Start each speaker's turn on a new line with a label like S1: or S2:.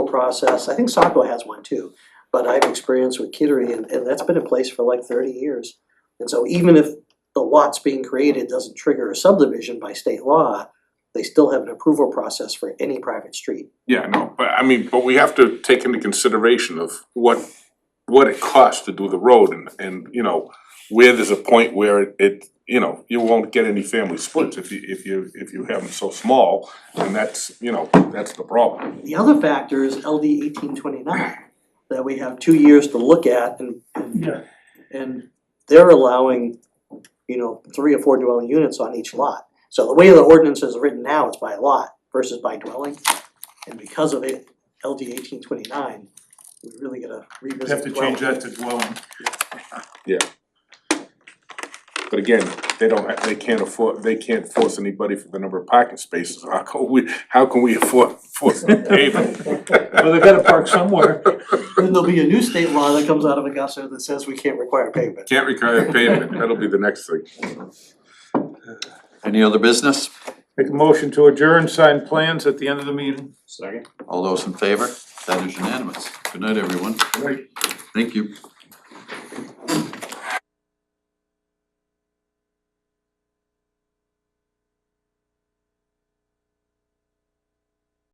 S1: process, I think Saco has one too, but I've experienced with Kittery and, and that's been in place for like thirty years. And so even if the lots being created doesn't trigger a subdivision by state law, they still have an approval process for any private street.
S2: Yeah, no, but I mean, but we have to take into consideration of what what it costs to do the road and and you know, where there's a point where it- it, you know, you won't get any family splits if you if you if you have them so small, and that's, you know, that's the problem.
S1: The other factor is LD eighteen twenty-nine, that we have two years to look at and,
S3: Yeah.
S1: and they're allowing, you know, three or four dwelling units on each lot. So the way the ordinance is written now, it's by lot versus by dwelling, and because of it, LD eighteen twenty-nine, we really gotta revisit
S3: Have to
S1: dwelling.
S3: change that to dwelling.
S2: But again, they don't, ha- they can't afford, they can't force anybody for the number of parking spaces, how can we, how can we afford force paving?
S3: Well, they gotta park somewhere.
S1: Then there'll be a new state law that comes out of Augusta that says we can't require pavement.
S2: Can't require pavement, that'll be the next thing.
S4: Any other business?
S3: Make a motion to adjourn, sign plans at the end of the meeting.
S4: All those in favor? That is unanimous. Good night, everyone. Thank you.